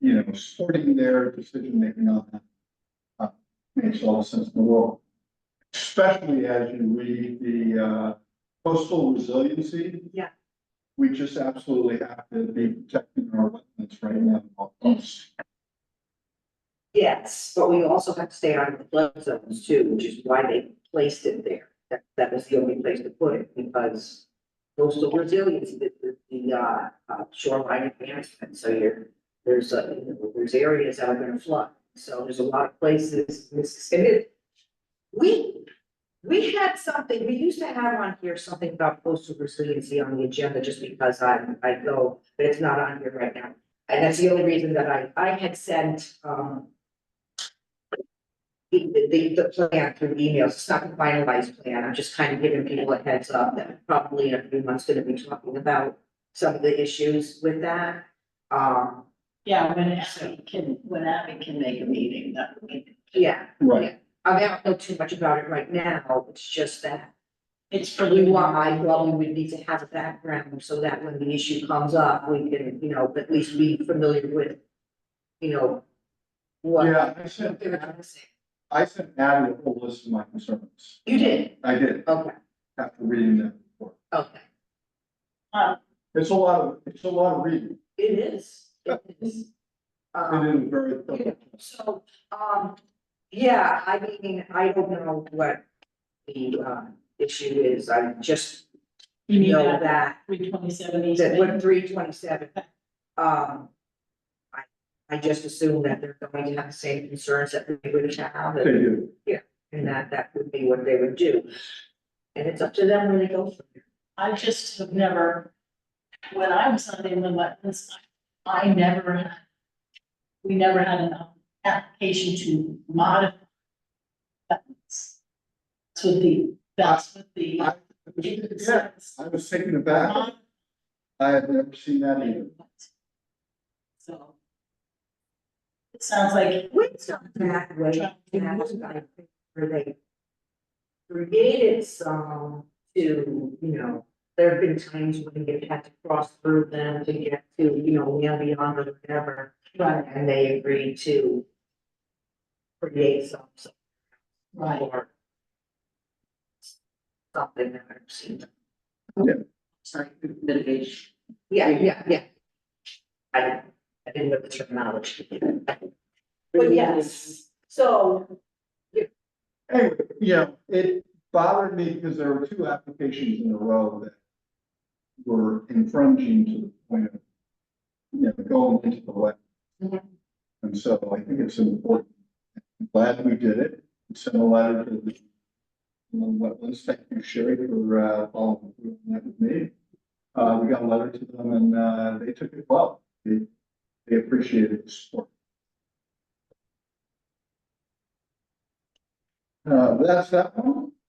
know, sorting their decision making on that. uh, Makes all the sense in the world. Especially as you read the uh, coastal resiliency. Yeah. We just absolutely have to be protecting our wetlands right now. at all costs. Yes, but we also have to stay out of the flood zones too, which is why they placed it there. That, that was the only place to put it because coastal resilience, the, the, the, uh, uh, shoreline advancement, so you're, there's, uh, you know, there's areas that are gonna flood. So there's a lot of places, this, it is. We, we had something, we used to have on here something about coastal resiliency on the agenda just because I, I go, but it's not on here right now. And that's the only reason that I, I had sent, um, the, the, the plan through emails, it's not a finalized plan, I'm just kind of giving people a heads up that probably in a few months gonna be talking about some of the issues with that. Um, Yeah, when Abby can, when Abby can make a meeting, that would be, yeah, Right, I mean, I don't know too much about it right now, it's just that it's we preliminary. want, I, well, we would need to have a background so that when the issue comes up, we can, you know, at least be familiar with, you know, what. Yeah, I sent- They're trying to say. I sent Abby a whole list of my concerns. You did, I did, okay, after reading that report. okay. It's a lot of, it's a lot of reading, It is, it is. it Um, is very thorough. so, um, yeah, I mean, I don't know what the, um, issue is, I just You mean know that that, three twenty-seven that easement, one three twenty-seven, um, I, I just assume that they're going to have the same concerns that we would have, They and, do, and that that would be what they would do. And it's up to them where they go from there. I just have never, when I was on the inland wetlands, I I never had. We never had an application to modify. wetlands. That's what the, that's what the. yeah, I was taken aback, I had never seen that either. So. It sounds like. Wait, not that way. And I think where they created some to, you know, there have been times when you've had to cross through them to get to, you know, well beyond or whatever. Right, And they agreed to create some, some right. or something that I've seen. Yeah. Sorry, mitigation. Yeah, yeah, yeah. I, I didn't know the terminology. But yes, so Anyway, yeah, it bothered me because there were two applications in a row that were infringing to the point of, you know, going into the wet. Mhm. And so I think it's important. I'm Glad we did it. Send a letter to the um, wetlands. Thank you, Sherry, for uh, all that with me. Uh, we got a letter to them and uh, they took it well. They, they appreciated the support. Uh, that's that one.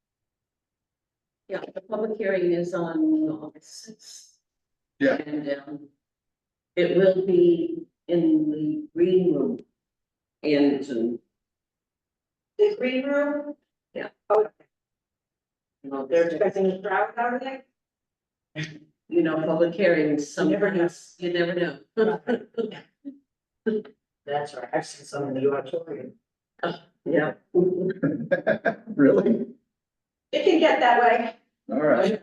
Yeah, the public hearing is on August sixth. Yeah. And, um, it will be in the green room in Zoom. The green room? Yeah. Oh, you know, they're there's been- expecting a crowd out of there? You know, public hearings, some, never know. you never know. That's right, I've seen some in the auditorium. Yeah. Really? It can get that way, All right.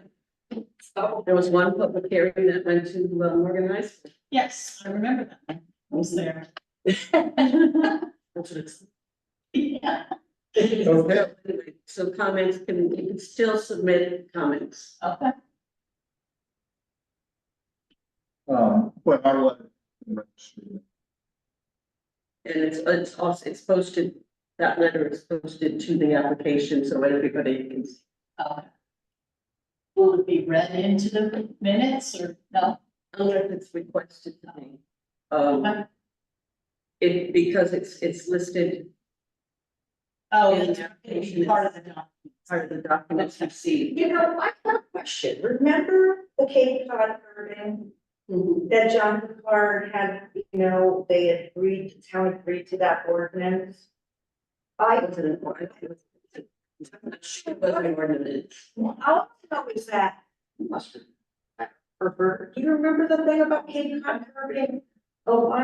so. There was one public hearing that went to um, Morgan High School. Yes, I remember that. I was there. That's what it's- Yeah, Okay. Anyway, So comments can, you can still submit comments. okay. Um, but our letter. And it's, it's also, it's posted, that letter is posted to the application, so everybody can see. Uh, Will it be read into the minutes or no? Unless it's requested to me. Oh, Um, it, because it's, it's listed Oh, Yeah, it's the it'd be part of the document. part of the documents received. You know, I have a question, remember the Cape Cod permit Mhm. that John Picard had, you know, they agreed, the town agreed to that ordinance? It I, was an or- it was an ordinance. all I know is that, Must be. or, or, do you remember the thing about Cape Cod permit? Oh, I